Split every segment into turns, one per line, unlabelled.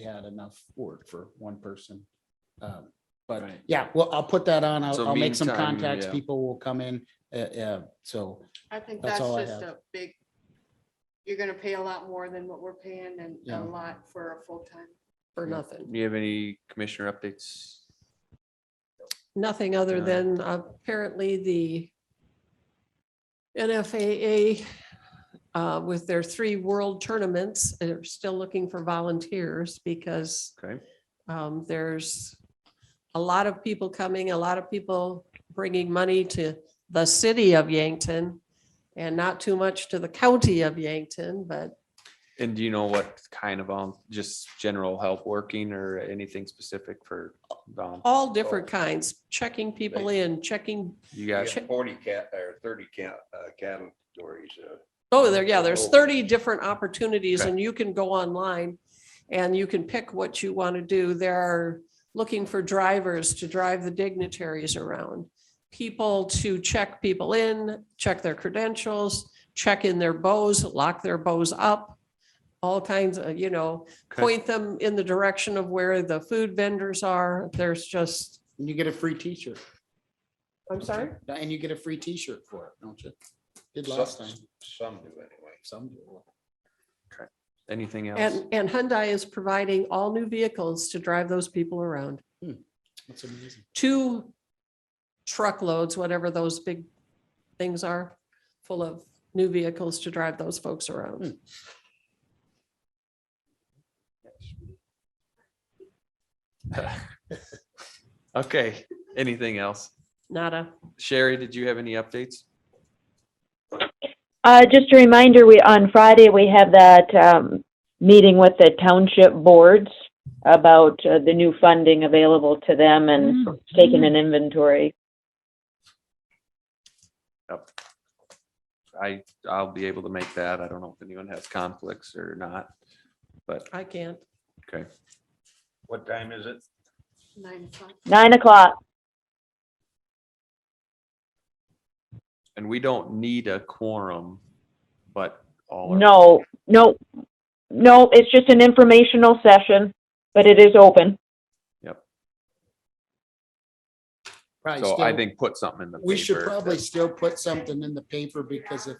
had enough work for one person. Um, But
Right.
yeah, well, I'll put that on. I'll,
So
I'll make some
meantime,
contacts.
yeah.
People will come in. Uh, uh, so
I think
That's
that's
all I
just
have.
a big, you're gonna pay a lot more than what we're paying and
Yeah.
a lot for a full-time.
for
Yeah.
nothing.
Do you have any commissioner updates?
Nothing other
Yeah.
than apparently the NFAA uh, with their three world tournaments, they're still looking for volunteers because
Okay,
um, there's a lot of people coming, a lot of people bringing money to the city of Yankton and not too much to the county of Yankton, but
and do you know what kind of, um, just general help working or anything specific for, um,
all different kinds, checking people in, checking
you
We
guys?
got Forty cat, or thirty cat, uh, categories, uh,
Oh, there, yeah, there's
Oh.
thirty different opportunities
Okay.
and you can go online and you can pick what you want to do. There are looking for drivers to drive the dignitaries around. People to check people in, check their credentials, check in their bows, lock their bows up. All kinds of, you know,
Okay.
point them in the direction of where the food vendors are. There's just,
and you get a free t-shirt
I'm sorry?
and you get a free t-shirt for it, don't you? Did
some-
last time.
Some do anyway.
Some do.
Anything else?
And, and Hyundai is providing all new vehicles to drive those people around.
That's amazing.
two truckloads, whatever those big things are, full of new vehicles to drive those folks around.
Okay, anything else?
Nada.
Sherry, did you have any updates?
Uh, just a reminder, we, on Friday, we have that, um, meeting with the township boards about uh, the new funding available to them and taking an inventory.
I, I'll be able to make that. I don't know if anyone has conflicts or not, but,
I can't.
okay.
What time is it?
Nine o'clock.
Nine o'clock.
And we don't need a quorum, but all. are-
No, no, no, it's just an informational session, but it is open.
Probably
So I
still-
think put something in the.
We should
paper
probably
that-
still put something in the paper because if,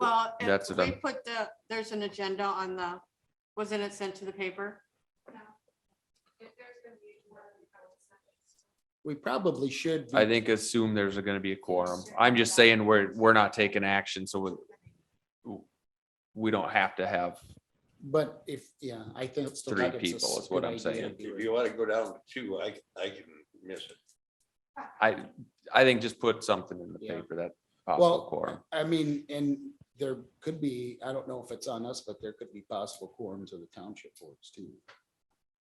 Well,
That's
if
it,
we
um,
put the, there's an agenda on the, wasn't it sent to the paper?
we probably should. be-
I think assume there's gonna be a quorum. I'm just saying we're, we're not taking action, so we, we don't have to have,
But if, yeah, I think. it's the
Three
right- it's a
people is
good
what I'm
idea
saying.
to do
If
it.
you wanna go down to two, I, I can miss it.
I, I think just put something in the
Yeah.
paper that
Well,
possible quorum.
I mean, and there could be, I don't know if it's on us, but there could be possible quorums of the township boards too.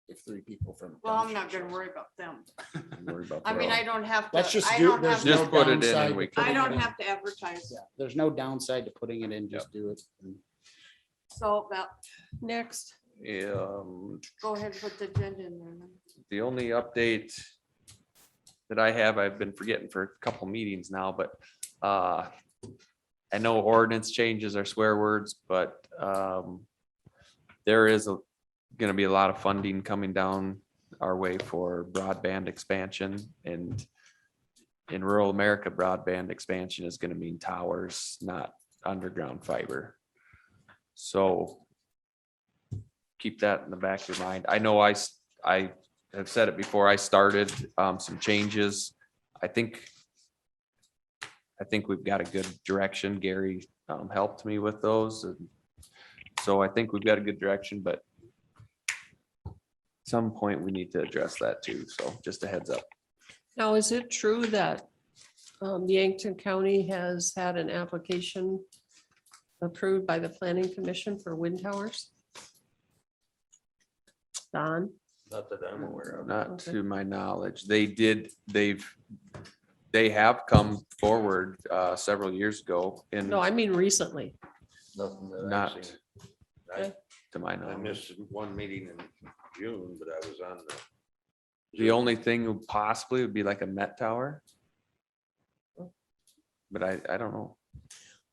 If three people from.
Well, I'm not gonna
township-
worry about them.
Don't worry about
I mean,
quorum.
I don't have to,
Let's just
I
do,
don't have,
there's
to-
no
Just put it in and
downside.
we
to
I
putting
don't
it in.
have to advertise.
Yeah, There's no downside to putting it in, just do it.
So that,
Next.
Um,
go ahead and put the agenda in there. then.
the only update that I have, I've been forgetting for a couple meetings now, but uh, I know ordinance changes are swear words, but um, there is a- gonna be a lot of funding coming down our way for broadband expansion and in rural America, broadband expansion is gonna mean towers, not underground fiber. So keep that in the back of your mind. I know I, s- I have said it before I started, um, some changes. I think I think we've got a good direction. Gary, um, helped me with those. and So I think we've got a good direction, but at some point we need to address that too. So just a heads up.
Now, is it true that um, Yankton County has had an application approved by the planning commission for wind towers? Don?
Not that I'm aware of.
Not
Okay.
to my knowledge. They did, they've, they have come forward, uh, several years ago and
No, I mean recently.
Nothing that
Not.
I've seen. I,
to my
I
knowledge.
missed one meeting in June, but I was on the.
The only thing would possibly would be like a Met Tower. But I, I don't know.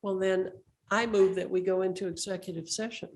Well, then I move that we go into executive session.